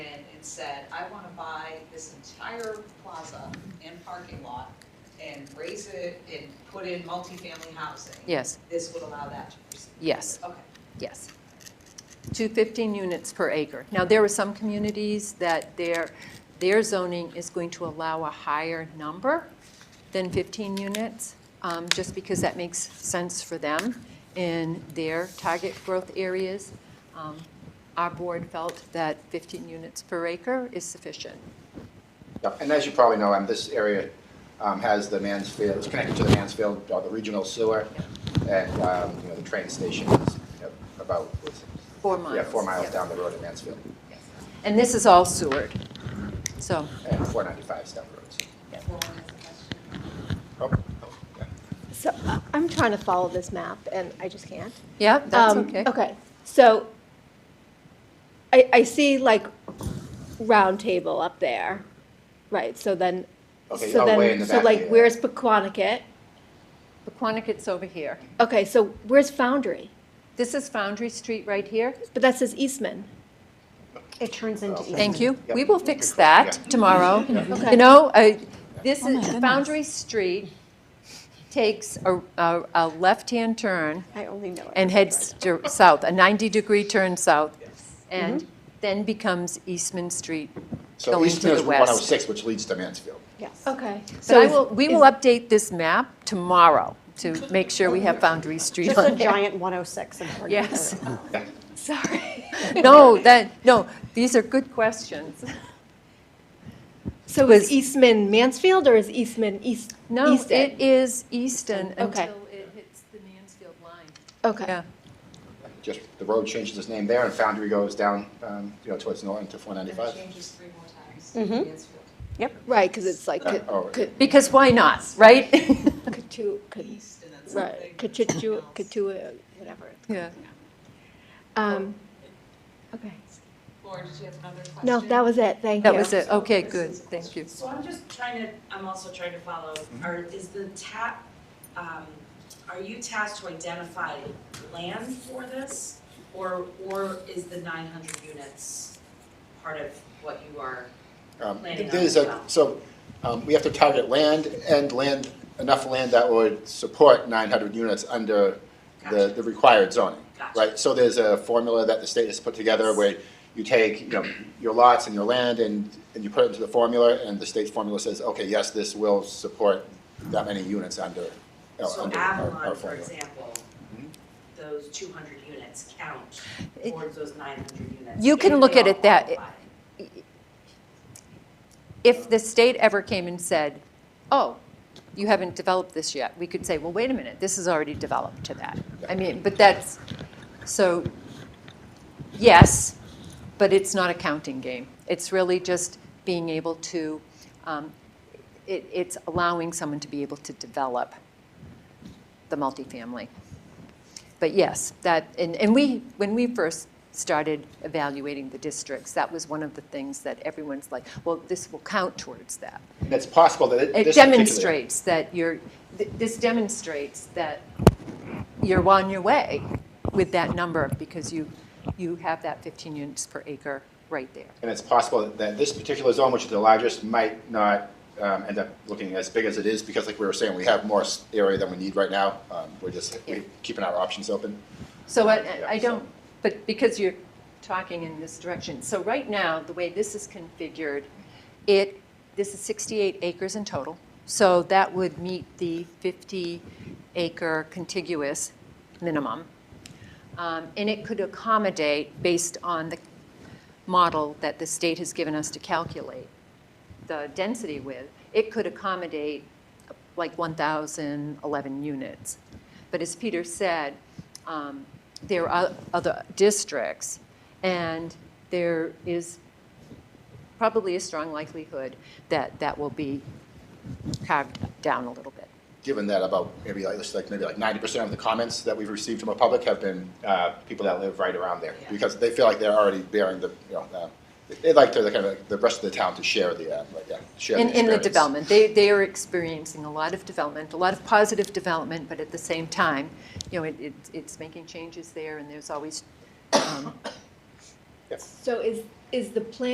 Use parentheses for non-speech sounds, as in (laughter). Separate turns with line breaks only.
and said, I wanna buy this entire plaza and parking lot and raise it and put in multifamily housing.
Yes,
This would allow that to proceed.
yes,
Okay,
yes. To 15 units per acre. Now, there are some communities that their, their zoning is going to allow a higher number than 15 units, um, just because that makes sense for them in their target growth areas. Um, Our board felt that 15 units per acre is sufficient.
Yeah, and as you probably know, um, this area um, has the Mansfield, it's connected to the Mansfield, uh, the regional sewer, and, um, you know, the train station is you know, about, what's it?
Four miles.
Yeah, four miles
Yes.
down the road at Mansfield,
And this is all Seward, so.
and 495 is down the road. so.
well, one is a question.
Oh, oh, yeah.
So uh, I'm trying to follow this map and I just can't.
Yeah, that's
Um,
okay.
Okay, so I, I see like round table up there, right? So then,
Okay,
so
oh, way in
then,
the
so
back
like
here.
where's Pequonicket?
Paquonicket's over here.
Okay, so where's Foundry?
This is Foundry Street right here.
But that says Eastman.
It turns into
Okay.
East.
Thank you.
Yep.
We will fix that tomorrow.
Okay.
You know, uh, this
Oh my
is,
goodness.
Foundry Street takes a, a, a left-hand turn
I only know it.
and heads dir- south, a 90-degree turn south, and then becomes Eastman Street
So
going to
Eastman
the
is
west.
106, which leads to Mansfield.
Yes.
Okay.
But I
is-
will, we will
is-
update this map tomorrow to make sure we have Foundry Street
Just
(laughs)
a
on there.
giant 106 in Oregon.
Yes. (laughs)
Yeah.
Sorry. No, that, no, these are good questions.
So is Eastman Mansfield or is Eastman East,
No,
Easton?
it is Easton
Okay.
until it hits the Mansfield line.
Okay,
Yeah,
Just, the road changes its name there, and Foundry goes down, um, you know, towards Norton to
And it
495.
changes three more times.
Mhm.
Mansfield.
right, because it's like, could,
Oh, okay.
could,
because why not, right? (laughs)
could two, could,
East and then something.
right, could two, could two, whatever.
Yeah.
Um, okay.
Lauren, did you have another question?
No, that was it, thank you.
That was it, okay, good, thank you.
So I'm just trying to, I'm also trying to follow,
Mm-hmm.
are, is the tap, um, are you tasked to identify land for this? Or, or is the nine hundred units part of what you are,
Um,
Planning on
There's
as
a,
well.
so, um, we have to target land and land, enough land that would support nine hundred units under the,
Gotcha.
the required zoning.
Gotcha.
Right, so there's a formula that the state has put together where you take, you know, your lots and your land and, and you put it into the formula and the state's formula says, okay, yes, this will support that many units under, uh,
so
under our, Mm-hmm. our
Avalon, for
formula.
example, those two hundred units count
It-
towards those nine hundred units?
You can
if
look
they
at
all
it that-
qualify?
If the state ever came and said, oh, you haven't developed this yet, we could say, well, wait a minute, this is already developed to that. I mean, but that's, so, yes, but it's not a counting game. It's really just being able to, um, it, it's allowing someone to be able to develop the multifamily. But yes, that, and, and we, when we first started evaluating the districts, that was one of the things that everyone's like, well, this will count towards that.
And it's possible that it-
It
this particular-
demonstrates that you're, th- this demonstrates that you're on your way with that number because you, you have that 15 units per acre right there.
And it's possible that this particular zone, which is the largest, might not um, end up looking as big as it is, because like we were saying, we have more s- area than we need right now. Um, We're just we're keeping our options open.
So
Yeah,
I, I
so-
don't, but because you're talking in this direction, so right now, the way this is configured, it, this is 68 acres in total, so that would meet the 50-acre contiguous minimum. Um, And it could accommodate, based on the model that the state has given us to calculate the density with, it could accommodate like 1,011 units. But as Peter said, um, there are other districts, and there is probably a strong likelihood that that will be carved down a little bit.
Given that about maybe like, it's like maybe like ninety percent of the comments that we've received from the public have been uh, people that live right around there,
Yeah.
because they feel like they're already bearing the, you know, uh, they'd like to, the kind of, the rest of the town to share the, uh, like, uh, share the
In, in the
experience.
development, they, they are experiencing a lot of development, a lot of positive development, but at the same time, you know, it, it's- it's making changes there, and there's always um,
So is, is the plan